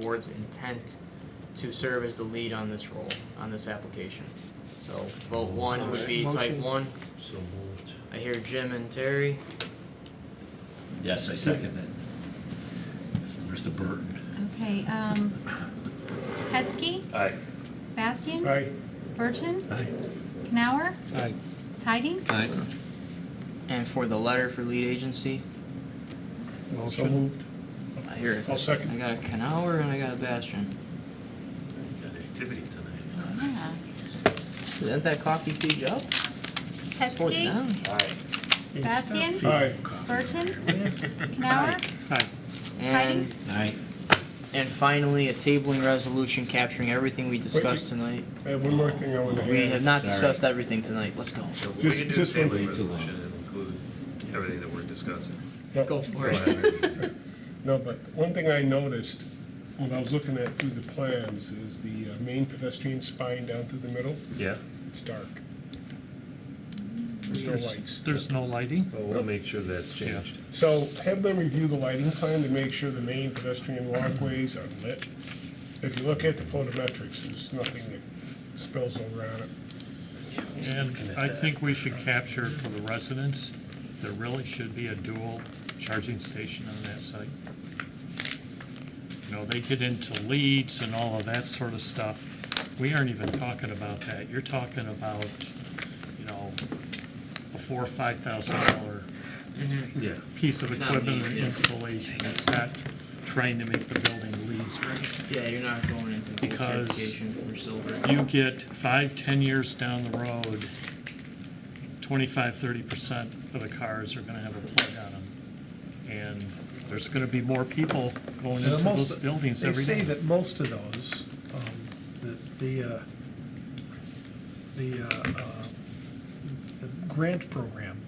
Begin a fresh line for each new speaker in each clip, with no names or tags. board's intent to serve as the lead on this role, on this application. So vote one would be type
Motion.
one.
So moved.
I hear Jim and Terry.
Yes, I second that. Mr. Burton.
Okay, um, Hetzke,
Aye.
Bastian.
Aye.
Burton,
Aye.
Knauer,
Aye.
Tidings.
Aye.
And for the letter for lead agency,
So moved.
I hear,
I'll
I
second.
got a Canower and I got a Bastion.
Got activity tonight.
Yeah.
Is that that coffee speech up? It's going
Hetzke,
down.
Aye.
Bastian,
Aye.
Burton,
Aye.
Knauer,
Aye.
And,
Tidings.
Aye.
and finally, a tabling resolution capturing everything we discussed tonight.
I have one more thing I want to add.
We have not
Sorry.
discussed everything tonight. Let's go.
So we
Just-
can do a
just one-
table
Way too long.
resolution and include everything that we're discussing.
No,
Go for it.
No, but one thing I noticed when I was looking at through the plans is the uh, main pedestrian spine down through the middle,
Yeah,
it's dark. There's no lights.
There's no lighting?
well, we'll make sure that's changed.
So have them review the lighting plan to make sure the main pedestrian walkways are lit. If you look at the photometrics, there's nothing that spills over on it.
And I think we should capture for the residents, there really should be a dual charging station on that site. You know, they get into leads and all of that sort of stuff. We aren't even talking about that. You're talking about, you know, a four or five thousand dollar
Yeah.
piece of
Not
equipment
lead,
or
yeah.
installation. It's not trying to make the building leads or anything.
Yeah, you're not going into gold
Because
certification or silver.
you get five, ten years down the road, 25, 30% of the cars are going to have a plug on them. And there's going to be more people going
Now,
into
most-
those buildings every
They say
day.
that most of those, um, that the, uh, the, uh, uh, the grant program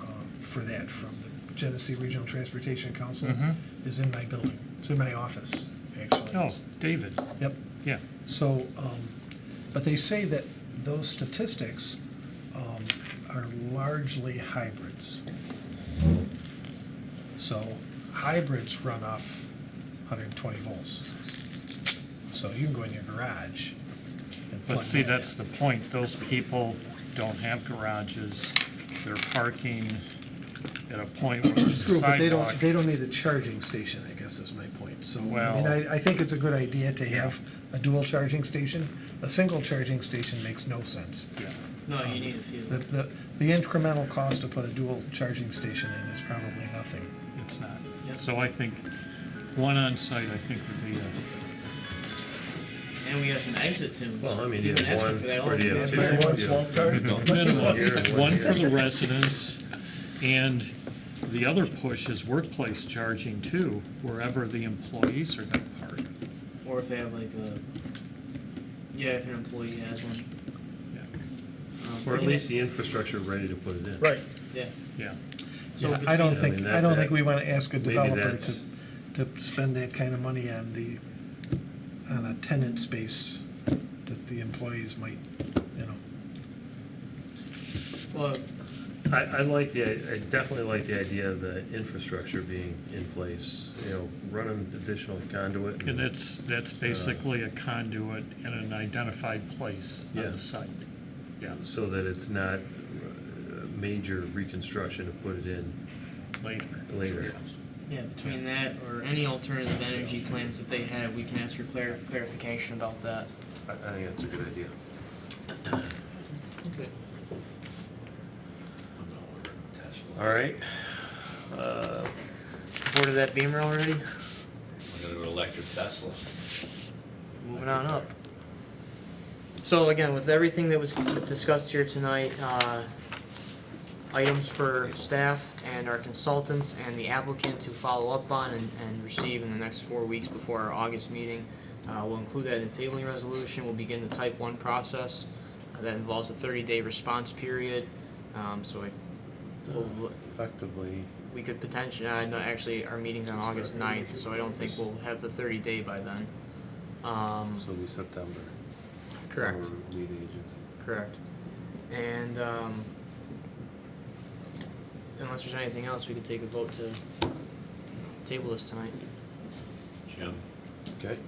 uh, for that from the Genesee Regional Transportation Council
Mhm.
is in my building, it's in my office, actually.
Oh, David,
Yep,
yeah.
so, um, but they say that those statistics um, are largely hybrids. So hybrids run off 120 volts. So you can go in your garage and plug
But see,
that
that's
in.
the point. Those people don't have garages. They're parking at a point where there's a
True, but they
sidewalk.
don't, they don't need a charging station, I guess is my point. So, I mean,
Well-
I, I think it's a good idea to have a dual charging station. A single charging station makes no sense.
Yeah.
No, you need a few.
The, the, the incremental cost to put a dual charging station in is probably nothing.
It's not.
Yep.
So I think one on site, I think would be a
And we have some exit tunes.
Well, I mean,
You've been
you have
asking
one
for that all
or you
day.
have two.
Everybody wants
Yeah.
walk dark?
minimum,
Here and
one
one
for the
here.
residents, and the other push is workplace charging too, wherever the employees are gonna park.
Or if they have like a, yeah, if an employee has one.
Yeah.
Um,
Or at
and-
least the infrastructure ready to put it in.
Right.
Yeah.
Yeah,
So
Yeah,
it's
I don't
I
think,
mean,
I don't
that-
think we want to ask a
maybe
developer to,
that's-
to spend that kind of money on the, on a tenant space that the employees might, you know.
Well,
I, I like the, I definitely like the idea of the infrastructure being in place, you know, running additional conduit.
and that's, that's basically a conduit in an identified place on
Yeah.
the site. Yeah,
So that it's not uh, major reconstruction to put it in
later.
later.
yeah, between that or any alternative energy plans that they have, we can ask for clar- clarification about that.
I, I think that's a good idea.
Okay.
All right. Uh,
Boarded that Beamer already?
We're gonna go electric Tesla.
Moving on up. So again, with everything that was discussed here tonight, uh, items for staff and our consultants and the applicant to follow up on and, and receive in the next four weeks before our August meeting. Uh, we'll include that in the tabling resolution. We'll begin the type one process. Uh, That involves a thirty-day response period. Um, so I, we'll,
Effectively,
we could potentially, uh, no, actually, our meeting's on August 9th, so I don't think we'll have the thirty day by then. Um,
so we September.
correct,
Or lead agency.
correct. And, um, unless there's anything else, we could take a vote to table this tonight.
Jim,
Okay.